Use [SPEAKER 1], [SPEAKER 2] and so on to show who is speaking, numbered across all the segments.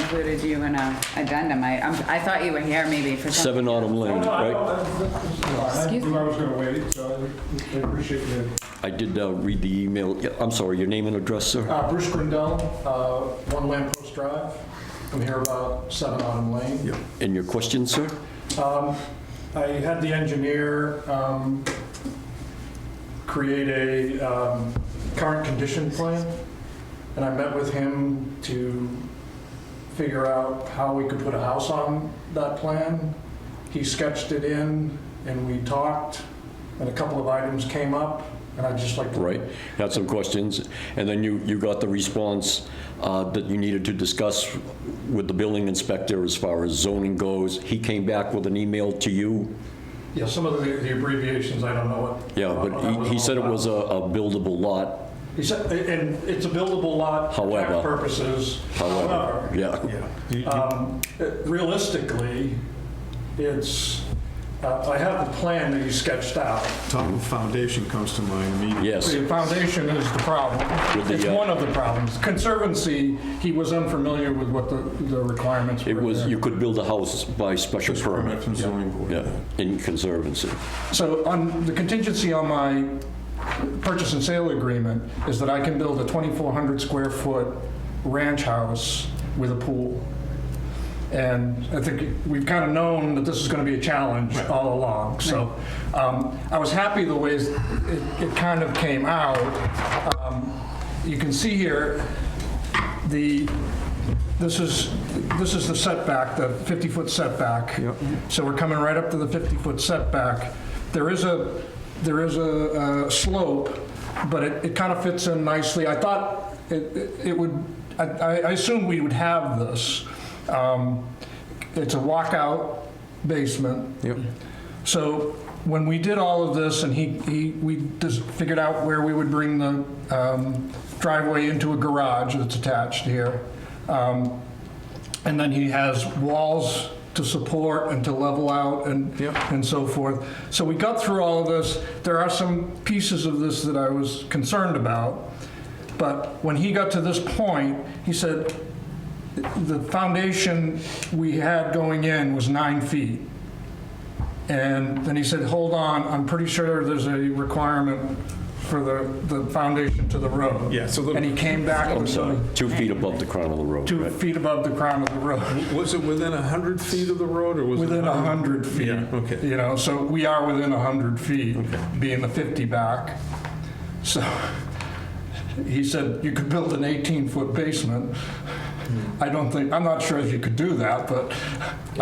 [SPEAKER 1] included you in a addendum. I, I'm- I thought you were here maybe for something.
[SPEAKER 2] Seven Autumn
[SPEAKER 3] No,
[SPEAKER 2] Lane,
[SPEAKER 3] no, I don't-
[SPEAKER 2] right?
[SPEAKER 3] that's- that's- that's fine. I
[SPEAKER 1] Excuse
[SPEAKER 3] knew I was going to wait, so I I appreciate you.
[SPEAKER 2] I did uh, read the email. Yeah, I'm sorry, your name and address, sir?
[SPEAKER 4] Uh, Bruce Grindel, uh, One Lamp Post Drive. I'm here about 7 Autumn Lane.
[SPEAKER 2] And your question, sir?
[SPEAKER 4] Um, I had the engineer um, create a um, current condition plan, and I met with him to figure out how we could put a house on that plan. He sketched it in, and we talked, and a couple of items came up, and I'd just like to...
[SPEAKER 2] Right, had some questions, and then you, you got the response uh, that you needed to discuss with the building inspector as far as zoning goes. He came back with an email to you?
[SPEAKER 4] Yeah, some of the the abbreviations, I don't know what...
[SPEAKER 2] Yeah,
[SPEAKER 4] what that
[SPEAKER 2] but he- he
[SPEAKER 4] all
[SPEAKER 2] said it
[SPEAKER 4] about.
[SPEAKER 2] was a a buildable lot,
[SPEAKER 4] He said, and it's a buildable lot for tax
[SPEAKER 2] However.
[SPEAKER 4] purposes.
[SPEAKER 2] however, yeah.
[SPEAKER 5] Uh,
[SPEAKER 4] Um, Realistically, it's, uh, I have the plan that you sketched out.
[SPEAKER 5] Top of foundation comes to mind immediately.
[SPEAKER 2] Yes,
[SPEAKER 4] The foundation is the problem.
[SPEAKER 2] With the,
[SPEAKER 4] It's
[SPEAKER 2] uh,
[SPEAKER 4] one of the problems. Conservancy, he was unfamiliar with what the the requirements were.
[SPEAKER 2] it was,
[SPEAKER 4] there.
[SPEAKER 2] you could build a house by special
[SPEAKER 5] Just permit
[SPEAKER 2] permit,
[SPEAKER 5] from zoning board.
[SPEAKER 2] yeah, in conservancy.
[SPEAKER 4] So on, the contingency on my purchase and sale agreement is that I can build a 2,400 square foot ranch house with a pool. And I think we've kind of known that this is going to be a challenge all along. So um, I was happy the ways it it kind of came out. Um, You can see here, the, this is, this is the setback, the 50-foot setback. So we're coming right up to the 50-foot setback. There is a, there is a uh, slope, but it, it kind of fits in nicely. I thought it, it- it would, I, I I assumed we would have this. Um, It's a walkout basement.
[SPEAKER 5] Yep.
[SPEAKER 4] So when we did all of this and he, he, we just figured out where we would bring the um, driveway into a garage that's attached here. Um, And then he has walls to support and to level out and,
[SPEAKER 5] Yep.
[SPEAKER 4] and so forth. So we got through all of this. There are some pieces of this that I was concerned about. But when he got to this point, he said, the foundation we had going in was nine feet. And then he said, hold on, I'm pretty sure there's a requirement for the, the foundation to the road.
[SPEAKER 5] Yeah, so the-
[SPEAKER 4] And he came back
[SPEAKER 2] Oh, I'm
[SPEAKER 4] with
[SPEAKER 2] sorry,
[SPEAKER 4] something
[SPEAKER 2] two feet above the crown of the road,
[SPEAKER 4] two
[SPEAKER 2] right?
[SPEAKER 4] feet above the crown of the road,
[SPEAKER 5] Was it within 100 feet of the road, or was it?
[SPEAKER 4] within a 100 feet.
[SPEAKER 5] Yeah, okay.
[SPEAKER 4] You know, so we are within a 100 feet, being the 50 back. So he said, you could build an 18-foot basement.
[SPEAKER 2] Hmm.
[SPEAKER 4] I don't think, I'm not sure if you could do that, but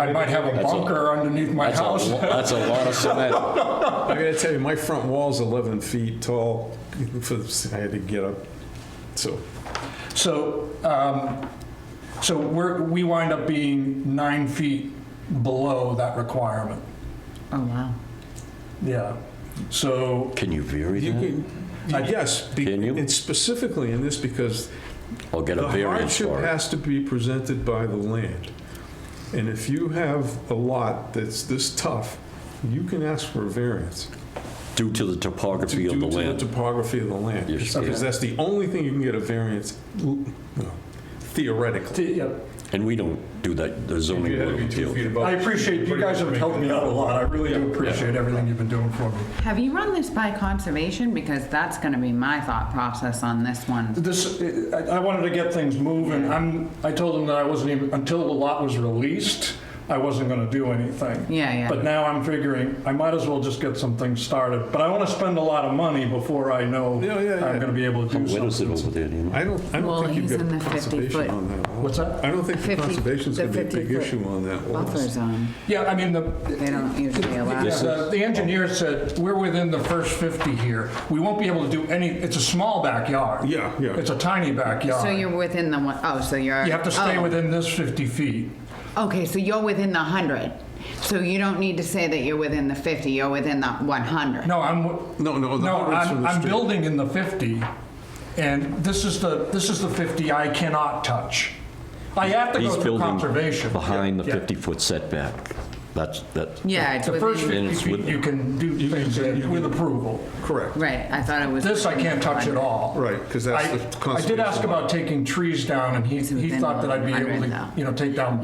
[SPEAKER 4] I might have a
[SPEAKER 2] That's a-
[SPEAKER 4] bunker underneath my
[SPEAKER 2] That's a,
[SPEAKER 4] house.
[SPEAKER 2] lo- that's a lot of cement.
[SPEAKER 5] I gotta tell you, my front wall's 11 feet tall, for the- I had to get up, so.
[SPEAKER 4] So, um, so we're, we wind up being nine feet below that requirement.
[SPEAKER 1] Oh, wow.
[SPEAKER 4] Yeah. So,
[SPEAKER 2] Can you vary
[SPEAKER 5] You
[SPEAKER 2] that?
[SPEAKER 5] can, yes, be-
[SPEAKER 2] Mm-hmm. Can you?
[SPEAKER 5] and specifically in this, because
[SPEAKER 2] I'll get a
[SPEAKER 5] the
[SPEAKER 2] variance
[SPEAKER 5] hardship
[SPEAKER 2] for it.
[SPEAKER 5] has to be presented by the land. And if you have a lot that's this tough, you can ask for a variance.
[SPEAKER 2] Due to the topography of the
[SPEAKER 5] Due to the
[SPEAKER 2] land.
[SPEAKER 5] topography of the land.
[SPEAKER 2] Yes,
[SPEAKER 5] Because
[SPEAKER 2] yeah.
[SPEAKER 5] that's the only thing you can get a variance, l- no,
[SPEAKER 4] the-
[SPEAKER 5] theoretically.
[SPEAKER 4] yeah,
[SPEAKER 2] And we don't do that, the zoning
[SPEAKER 5] You had to
[SPEAKER 2] board
[SPEAKER 5] be
[SPEAKER 2] of
[SPEAKER 5] two
[SPEAKER 2] appeals.
[SPEAKER 5] feet above.
[SPEAKER 4] I appreciate, you guys have helped me out a lot. I really do appreciate everything you've been doing for me.
[SPEAKER 1] Have you run this by conservation? Because that's gonna be my thought process on this one.
[SPEAKER 4] This, I I wanted to get things moving. I'm, I told them that I wasn't even, until the lot was released, I wasn't going to do anything.
[SPEAKER 1] Yeah, yeah.
[SPEAKER 4] But now I'm figuring, I might as well just get some things started. But I want to spend a lot of money before I know I'm
[SPEAKER 5] Yeah, yeah, yeah.
[SPEAKER 4] going to be able to do
[SPEAKER 2] What is it
[SPEAKER 4] something.
[SPEAKER 2] over there, do you know?
[SPEAKER 5] I don't, I
[SPEAKER 1] Well,
[SPEAKER 5] don't think
[SPEAKER 1] he's
[SPEAKER 5] you've
[SPEAKER 1] in the
[SPEAKER 5] got
[SPEAKER 1] 50 foot.
[SPEAKER 5] conservation on that lot.
[SPEAKER 4] What's that?
[SPEAKER 5] I don't think the
[SPEAKER 1] 50
[SPEAKER 5] conservation's
[SPEAKER 1] the
[SPEAKER 5] gonna be a big
[SPEAKER 1] 50
[SPEAKER 5] issue on that lot.
[SPEAKER 1] Buffer zone,
[SPEAKER 4] Yeah, I mean, the,
[SPEAKER 1] they don't usually allow.
[SPEAKER 4] yeah,
[SPEAKER 1] it.
[SPEAKER 4] the the engineer said, we're within the first 50 here. We won't be able to do any, it's a small backyard.
[SPEAKER 5] Yeah, yeah.
[SPEAKER 4] It's a tiny backyard.
[SPEAKER 1] So you're within the one, oh, so you're.
[SPEAKER 4] You have to stay
[SPEAKER 1] oh.
[SPEAKER 4] within this 50 feet.
[SPEAKER 1] Okay, so you're within the 100. So you don't need to say that you're within the 50, you're within the 100.
[SPEAKER 4] No, I'm,
[SPEAKER 5] No, no, the
[SPEAKER 4] no,
[SPEAKER 5] hardwood's from
[SPEAKER 4] I'm,
[SPEAKER 5] the
[SPEAKER 4] I'm
[SPEAKER 5] street.
[SPEAKER 4] building in the 50, and this is the, this is the 50 I cannot touch. I have to
[SPEAKER 2] He's
[SPEAKER 4] go through
[SPEAKER 2] building
[SPEAKER 4] conservation.
[SPEAKER 2] behind the
[SPEAKER 4] Yeah.
[SPEAKER 2] 50-foot setback. That's, that's.
[SPEAKER 1] Yeah, it's
[SPEAKER 4] The first
[SPEAKER 1] within,
[SPEAKER 4] 50
[SPEAKER 2] it's with-
[SPEAKER 4] feet, you can do
[SPEAKER 5] You can
[SPEAKER 4] things
[SPEAKER 5] do- you
[SPEAKER 4] with
[SPEAKER 5] can-
[SPEAKER 4] approval.
[SPEAKER 5] Correct,
[SPEAKER 1] right, I thought it was.
[SPEAKER 4] This I can't touch at all.
[SPEAKER 5] right, because that's
[SPEAKER 4] I
[SPEAKER 5] the
[SPEAKER 4] I
[SPEAKER 5] conservation.
[SPEAKER 4] did ask
[SPEAKER 5] law.
[SPEAKER 4] about taking trees down, and he
[SPEAKER 1] It's
[SPEAKER 4] he
[SPEAKER 1] within
[SPEAKER 4] thought that I'd be able
[SPEAKER 1] 100 now.
[SPEAKER 4] to, you know, take down